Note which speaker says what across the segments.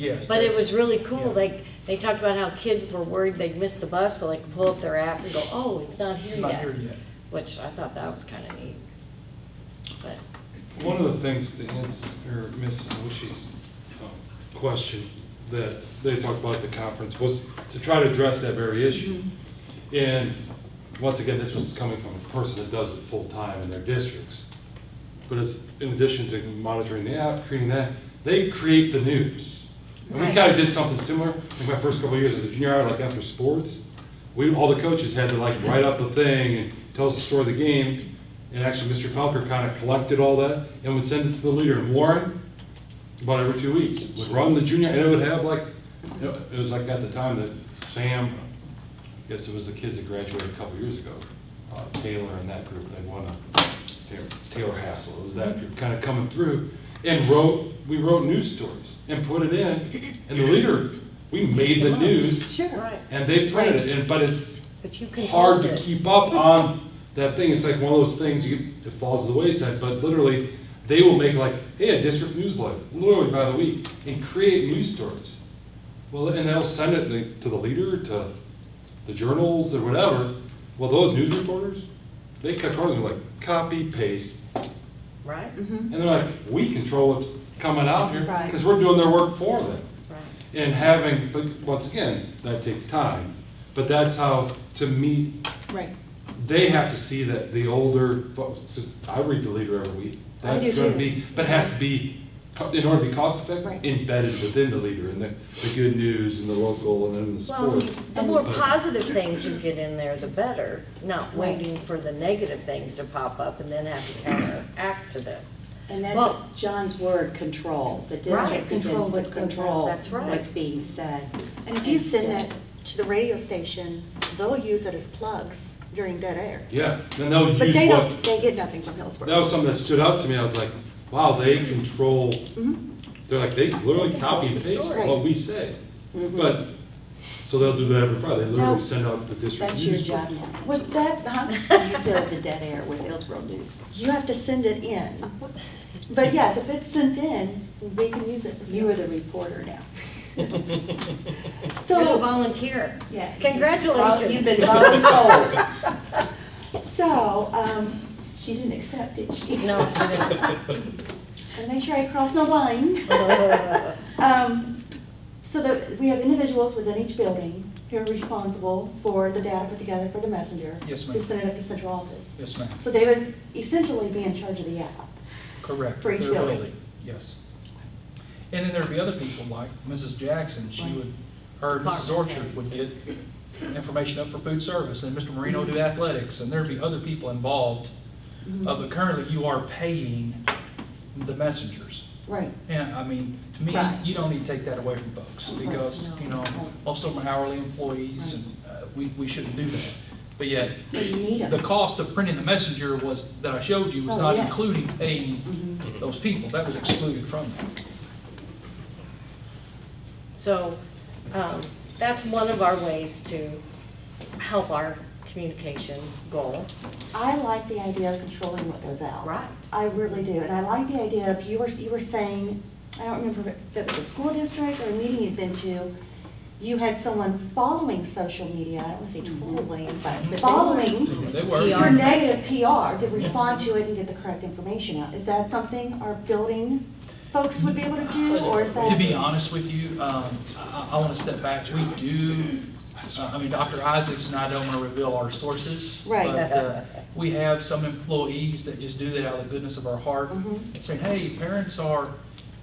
Speaker 1: Yes.
Speaker 2: But it
Speaker 1: that's-
Speaker 2: was really cool,
Speaker 1: yeah.
Speaker 2: like, they talked about how kids were worried they'd miss the bus, but like pull up their app and go, oh, it's not here
Speaker 1: It's not here
Speaker 2: yet.
Speaker 1: yet.
Speaker 2: Which I thought that was kind of neat. But,
Speaker 3: One of the things to answer Ms. Wishy's um, question that they talked about at the conference was to try to address that very issue. And once again, this was coming from a person that does it full-time in their districts. But it's, in addition to monitoring the app, creating that, they create the news. And we
Speaker 2: Right.
Speaker 3: kind of did something similar in my first couple of years at the junior high, like after sports. We, all the coaches had to like write up a thing and tell us the story of the game. And actually, Mr. Falker kind of collected all that and would send it to the leader. And Warren, about every two weeks, would run the junior, and it would have like, you know, it was like at the time that Sam, I guess it was the kids that graduated a couple years ago, uh, Taylor and that group, they won a, Taylor- Taylor Hassel, it was that group kind of coming through and wrote, we wrote news stories and put it in. And the leader, we made the news
Speaker 2: right,
Speaker 3: and they printed it, and, but it's,
Speaker 2: but you controlled
Speaker 3: hard to
Speaker 2: it.
Speaker 3: keep up on that thing. It's like one of those things you, it falls to the wayside, but literally, they will make like, hey, a district newsletter, literally by the week, and create news stories. Well, and they'll send it the- to the leader, to the journals or whatever. Well, those news reporters, they cut corners and like, copy, paste,
Speaker 2: Right,
Speaker 3: and they're like, we control what's coming out here,
Speaker 4: Right.
Speaker 3: because we're doing their work for them.
Speaker 2: right.
Speaker 3: And having, but once again, that takes time. But that's how, to me,
Speaker 4: Right.
Speaker 3: they have to see that the older, folks- 'cause I read the leader every week.
Speaker 2: I do
Speaker 3: That's
Speaker 2: too.
Speaker 3: going to be, but it has to be, co- in order to be cost effective,
Speaker 4: Right.
Speaker 3: embedded within the leader and the, the good news and the local and then the
Speaker 2: Well,
Speaker 3: sports.
Speaker 2: the more positive things you get in there, the better, not
Speaker 4: Right.
Speaker 2: waiting for the negative things to pop up and then have to counteract to them.
Speaker 5: And that's
Speaker 2: Well-
Speaker 5: John's word, control. The
Speaker 2: Right.
Speaker 5: district
Speaker 4: Control
Speaker 5: begins to
Speaker 4: what's going on.
Speaker 5: control
Speaker 2: That's right.
Speaker 5: what's being said.
Speaker 6: And if you send
Speaker 5: Instead-
Speaker 6: that to the radio station, they'll use it as plugs during dead air.
Speaker 3: Yeah, then they'll
Speaker 6: But
Speaker 3: use
Speaker 6: they don't,
Speaker 3: what,
Speaker 6: they get nothing from Hillsborough.
Speaker 3: that was something that stood out to me. I was like, wow, they control, they're like, they literally copy
Speaker 2: Control
Speaker 3: and
Speaker 2: the
Speaker 3: paste
Speaker 2: story.
Speaker 3: what we say. But, so they'll do that every Friday. They literally
Speaker 5: No,
Speaker 3: send out the district
Speaker 5: That's your
Speaker 3: news.
Speaker 5: job
Speaker 3: report.
Speaker 5: now. Would that, how you fill the dead air with Hillsborough News?
Speaker 6: You have to send it in.
Speaker 5: But yes, if it's sent in, we can use it. You are the reporter now.
Speaker 2: You're a
Speaker 5: So,
Speaker 2: volunteer.
Speaker 5: yes.
Speaker 2: Congratulations.
Speaker 5: You've been voluntold. So, um, she didn't accept it, she.
Speaker 2: No, she
Speaker 5: And make sure I cross no lines. Um, So that we have individuals within each building who are responsible for the data put together for the messenger.
Speaker 1: Yes, ma'am.
Speaker 5: To send it up to central office.
Speaker 1: Yes, ma'am.
Speaker 5: So they would essentially be in charge of the app.
Speaker 1: Correct.
Speaker 5: For each
Speaker 1: They're
Speaker 5: building.
Speaker 1: really- Yes. And then there'd be other people like Mrs. Jackson, she would, her and Mrs. Orchard would get information up for food service, and Mr. Marino do athletics, and there'd be other people involved.
Speaker 2: Mm-hmm.
Speaker 1: Uh, But currently, you are paying the messengers.
Speaker 5: Right.
Speaker 1: And, I mean, to me,
Speaker 5: Right.
Speaker 1: you don't need to take that away from folks, because, you know, most of them are hourly employees, and uh, we, we shouldn't do that. But yet,
Speaker 5: But you need
Speaker 1: the
Speaker 5: them.
Speaker 1: cost of printing the messenger was, that I showed you, was
Speaker 5: Oh,
Speaker 1: not
Speaker 5: yes. Mm-hmm.
Speaker 1: including paying those people, that was excluded from that.
Speaker 2: So um, that's one of our ways to help our communication goal.
Speaker 5: I like the idea of controlling what goes out.
Speaker 2: Right.
Speaker 5: I really do, and I like the idea of, you were, you were saying, I don't remember if it was a school district or a meeting you'd been to, you had someone following social media, I don't want to say trolling, but following
Speaker 1: They were.
Speaker 2: PR.
Speaker 5: your negative PR to respond to it and get the correct information out. Is that something our building folks would be able to do, or is that?
Speaker 1: To be honest with you, um, I, I want to step back. We do, uh, I mean, Dr. Isaacs and I don't want to reveal our sources.
Speaker 5: Right.
Speaker 1: But uh, we have some employees that just do that out of the goodness of our heart.
Speaker 5: Mhm.
Speaker 1: Saying, hey, parents are,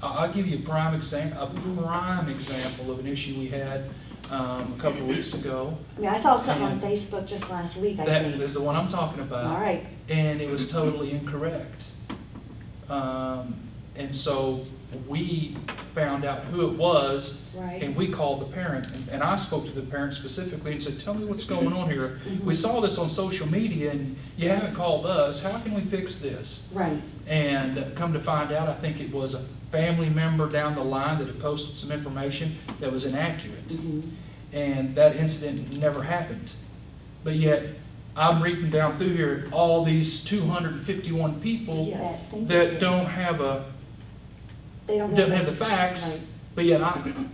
Speaker 1: I- I'll give you a prime example, a prime example of an issue we had um, a couple of weeks ago.
Speaker 5: I mean, I saw something on Facebook just last week, I
Speaker 1: That uh,
Speaker 5: think.
Speaker 1: is the one I'm talking about.
Speaker 5: All right,
Speaker 1: and it was totally incorrect. Um, And so we found out who it was,
Speaker 5: Right.
Speaker 1: and we called the parent, and- and I spoke to the parent specifically and said, tell me what's going on here. We saw this on social media, and you haven't called us, how can we fix this?
Speaker 5: right.
Speaker 1: And come to find out, I think it was a family member down the line that had posted some information that was inaccurate
Speaker 5: Mhm.
Speaker 1: and that incident never happened. But yet, I'm reading down through here, all these 251 people
Speaker 5: Yes, thank you.
Speaker 1: that don't have a,
Speaker 5: They don't
Speaker 1: don't have the facts,
Speaker 5: Right.
Speaker 1: But yet, I,